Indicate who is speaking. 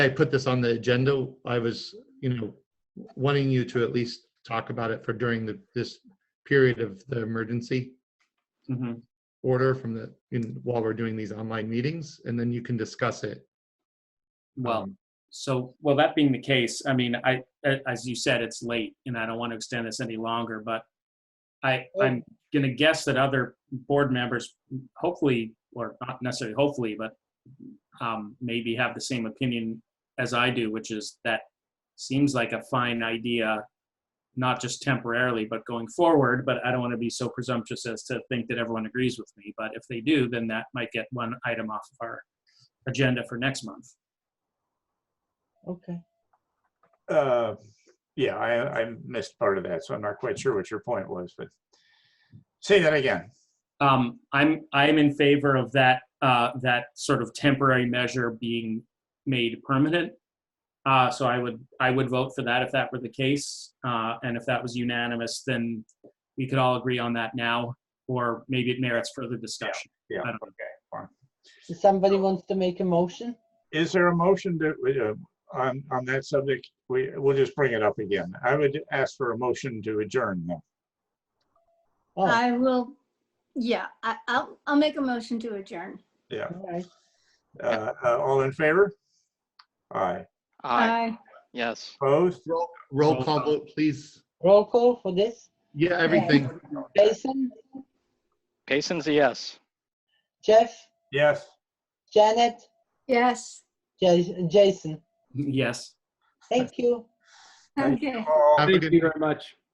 Speaker 1: I put this on the agenda, I was, you know, wanting you to at least talk about it for during the, this period of the emergency
Speaker 2: Mhm.
Speaker 1: order from the, in, while we're doing these online meetings, and then you can discuss it.
Speaker 2: Well,
Speaker 1: Um,
Speaker 2: so, well, that being the case, I mean, I, a- as you said, it's late and I don't want to extend this any longer, but I, I'm going to guess that other board members hopefully, or not necessarily hopefully, but um, maybe have the same opinion as I do, which is that seems like a fine idea, not just temporarily, but going forward. But I don't want to be so presumptuous as to think that everyone agrees with me. But if they do, then that might get one item off of our agenda for next month.
Speaker 3: Okay.
Speaker 4: Uh, Yeah, I, I missed part of that, so I'm not quite sure what your point was, but say that again.
Speaker 2: Um, I'm, I'm in favor of that, uh, that sort of temporary measure being made permanent. Uh, so I would, I would vote for that if that were the case. Uh, and if that was unanimous, then we could all agree on that now, or maybe it merits further discussion.
Speaker 4: Yeah,
Speaker 2: I don't-
Speaker 4: okay.
Speaker 3: If somebody wants to make a motion,
Speaker 4: Is there a motion that, we, uh, on, on that subject, we, we'll just bring it up again. I would ask for a motion to adjourn. then.
Speaker 3: oh, all
Speaker 5: I will, yeah, I, I'll, I'll make a motion to adjourn.
Speaker 4: Yeah,
Speaker 3: right.
Speaker 4: Uh, uh, all in favor? Aye,
Speaker 6: Aye, yes.
Speaker 4: opposed?
Speaker 1: Roll roll
Speaker 2: Roll
Speaker 1: call
Speaker 2: call.
Speaker 1: vote, please.
Speaker 3: Roll call for this.
Speaker 1: Yeah, everything.
Speaker 3: Jason,
Speaker 6: Payson's a yes.
Speaker 3: Jeff,
Speaker 4: Yes,
Speaker 3: Janet,
Speaker 5: Yes,
Speaker 3: Ja- Jason.
Speaker 2: Yes.
Speaker 3: Thank you.
Speaker 4: Thank
Speaker 5: okay.
Speaker 4: all.
Speaker 1: Have a
Speaker 7: Thank
Speaker 1: good
Speaker 7: you very much.